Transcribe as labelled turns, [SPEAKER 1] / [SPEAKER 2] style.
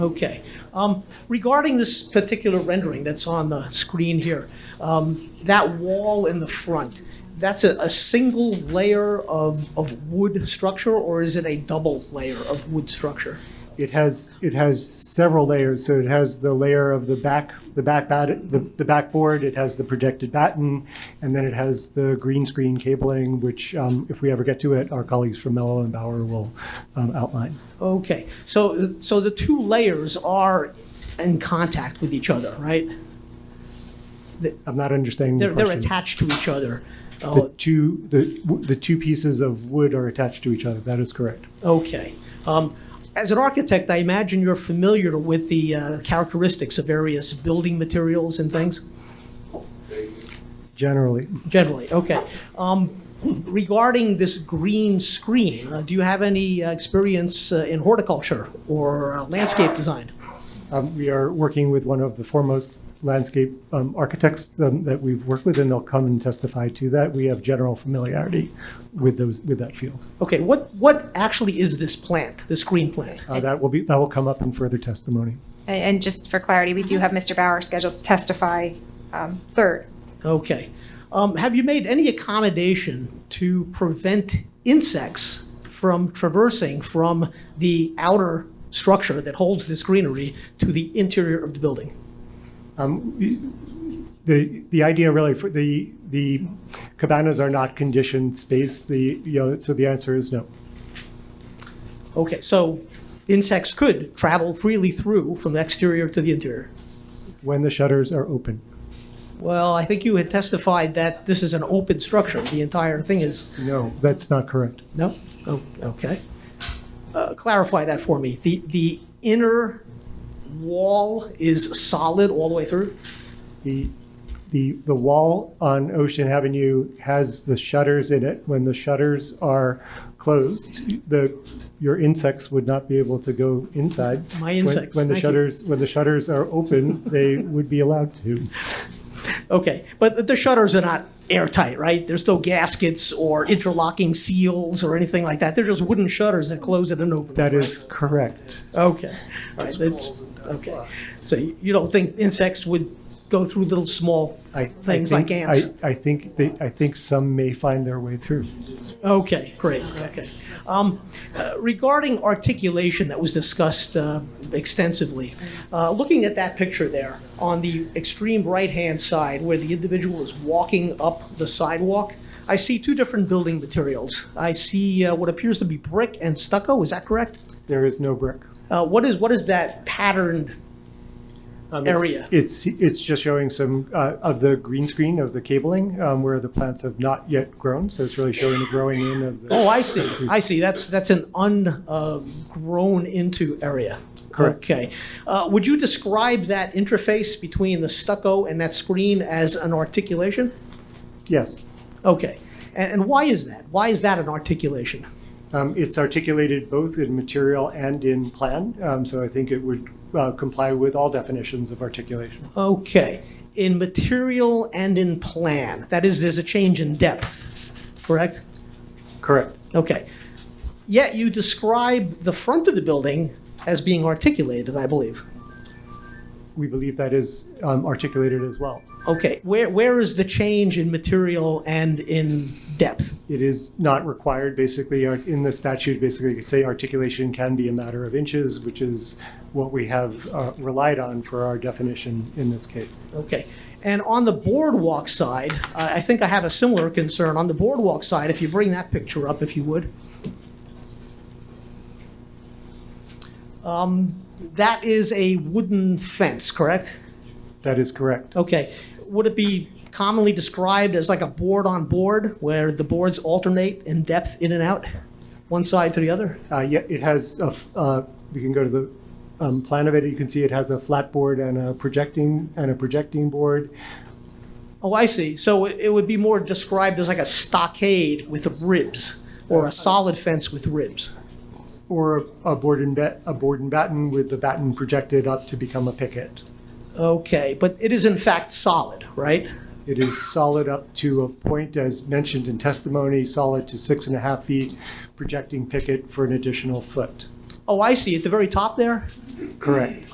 [SPEAKER 1] Okay. Um, Regarding this particular rendering that's on the screen here, um, that wall in the front, that's a, a single layer of, of wood structure, or is it a double layer of wood structure?
[SPEAKER 2] It has, it has several layers, so it has the layer of the back, the back bat, the, the backboard, it has the projected batten, and then it has the green screen cabling, which, um, if we ever get to it, our colleagues from Mello and Bauer will, um, outline.
[SPEAKER 1] Okay, so, so the two layers are in contact with each other, right?
[SPEAKER 2] I'm not understanding the
[SPEAKER 1] They're, they're
[SPEAKER 2] question.
[SPEAKER 1] attached to each other.
[SPEAKER 2] The
[SPEAKER 1] Oh,
[SPEAKER 2] two, the, w- the two pieces of wood are attached to each other, that is correct.
[SPEAKER 1] Okay. Um, As an architect, I imagine you're familiar with the uh, characteristics of various building materials and things?
[SPEAKER 2] Generally,
[SPEAKER 1] Generally, okay. Um, Regarding this green screen, uh, do you have any uh, experience uh, in horticulture or uh, landscape design?
[SPEAKER 2] um, we are working with one of the foremost landscape, um, architects um, that we've worked with, and they'll come and testify to that. We have general familiarity with those, with that field.
[SPEAKER 1] Okay, what, what actually is this plant, this green plant?
[SPEAKER 2] Uh, That will be, that will come up in further testimony.
[SPEAKER 3] And and just for clarity, we do have Mr. Bauer scheduled to testify um, third.
[SPEAKER 1] Okay. Um, Have you made any accommodation to prevent insects from traversing from the outer structure that holds this greenery to the interior of the building?
[SPEAKER 2] Um, The, the idea really for the, the cabanas are not conditioned space, the, you know, so the answer is no.
[SPEAKER 1] Okay, so insects could travel freely through from the exterior to the interior?
[SPEAKER 2] When the shutters are open.
[SPEAKER 1] Well, I think you had testified that this is an open structure. The entire thing is,
[SPEAKER 2] No, that's not correct.
[SPEAKER 1] no? Oh, okay. Uh, Clarify that for me. The, the inner wall is solid all the way through?
[SPEAKER 2] The, the, the wall on Ocean Avenue has the shutters in it. When the shutters are closed, the, your insects would not be able to go inside.
[SPEAKER 1] My
[SPEAKER 2] When-
[SPEAKER 1] insects,
[SPEAKER 2] When the
[SPEAKER 1] thank you.
[SPEAKER 2] shutters, when the shutters are open, they would be allowed to.
[SPEAKER 1] Okay, but the shutters are not airtight, right? There's no gaskets or interlocking seals or anything like that. They're just wooden shutters that close it and open.
[SPEAKER 2] That is correct.
[SPEAKER 1] Okay, all right, that's, okay. So you you don't think insects would go through little small
[SPEAKER 2] I- I
[SPEAKER 1] things like
[SPEAKER 2] think-
[SPEAKER 1] ants?
[SPEAKER 2] I, I think they, I think some may find their way through.
[SPEAKER 1] Okay, great, okay. Um, uh, Regarding articulation that was discussed uh, extensively, uh, looking at that picture there, on the extreme right-hand side where the individual is walking up the sidewalk, I see two different building materials. I see uh, what appears to be brick and stucco, is that correct?
[SPEAKER 2] There is no brick.
[SPEAKER 1] Uh, What is, what is that patterned?
[SPEAKER 2] Um, it's-
[SPEAKER 1] Area.
[SPEAKER 2] It's, it's just showing some uh, of the green screen of the cabling um, where the plants have not yet grown. So it's really showing the growing in of the.
[SPEAKER 1] Oh, I see, I see, that's, that's an ungrown-into area.
[SPEAKER 2] Correct.
[SPEAKER 1] Okay. Uh, Would you describe that interface between the stucco and that screen as an articulation?
[SPEAKER 2] Yes.
[SPEAKER 1] Okay. And and why is that? Why is that an articulation?
[SPEAKER 2] Um, It's articulated both in material and in plan. Um, So I think it would uh, comply with all definitions of articulation.
[SPEAKER 1] Okay. In material and in plan. That is, there's a change in depth, correct?
[SPEAKER 2] Correct.
[SPEAKER 1] Okay. Yet you describe the front of the building as being articulated, I believe.
[SPEAKER 2] We believe that is um, articulated as well.
[SPEAKER 1] Okay. Where Where is the change in material and in depth?
[SPEAKER 2] it is not required, basically, Ar- in the statute, basically, you could say articulation can be a matter of inches, which is what we have uh, relied on for our definition in this case.
[SPEAKER 1] Okay. And on the boardwalk side, I I think I have a similar concern. On the boardwalk side, if you bring that picture up, if you would. Um, That is a wooden fence, correct?
[SPEAKER 2] That is correct.
[SPEAKER 1] Okay. Would it be commonly described as like a board on board, where the boards alternate in depth in and out, one side to the other?
[SPEAKER 2] Uh, Yeah, it has, a f- uh, you can go to the um, plan of it, you can see it has a flat board and a projecting, and a projecting board.
[SPEAKER 1] Oh, I see. So it it would be more described as like a stockade with ribs, or a solid fence with ribs?
[SPEAKER 2] Or a- a board and bat, a board and batten with the batten projected up to become a picket.
[SPEAKER 1] Okay, but it is in fact solid, right?
[SPEAKER 2] It is solid up to a point, as mentioned in testimony, solid to six and a half feet, projecting picket for an additional foot.
[SPEAKER 1] Oh, I see, at the very top there?
[SPEAKER 2] Correct.